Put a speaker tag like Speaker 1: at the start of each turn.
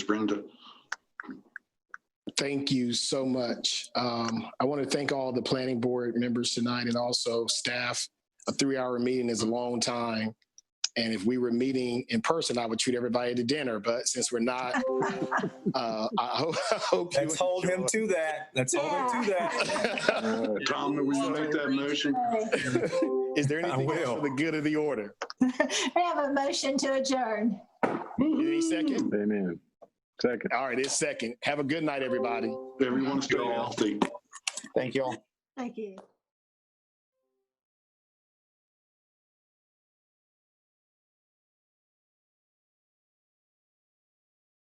Speaker 1: Brenda.
Speaker 2: Thank you so much. Um, I want to thank all the planning board members tonight and also staff. A three-hour meeting is a long time. And if we were meeting in person, I would treat everybody to dinner, but since we're not, uh, I hope, I hope. you
Speaker 3: Let's hold him to that. Let's hold him to that.
Speaker 2: enjoy.
Speaker 1: Uh, Tom, will you make that motion?
Speaker 2: Is there
Speaker 3: I
Speaker 2: anything else
Speaker 3: will.
Speaker 2: for the good of the order?
Speaker 4: I have a motion to adjourn.
Speaker 2: Any second?
Speaker 5: Amen. Second.
Speaker 2: All right, it's second. Have a good night, everybody.
Speaker 1: Everyone stay healthy.
Speaker 6: Thank you all.
Speaker 4: Thank you.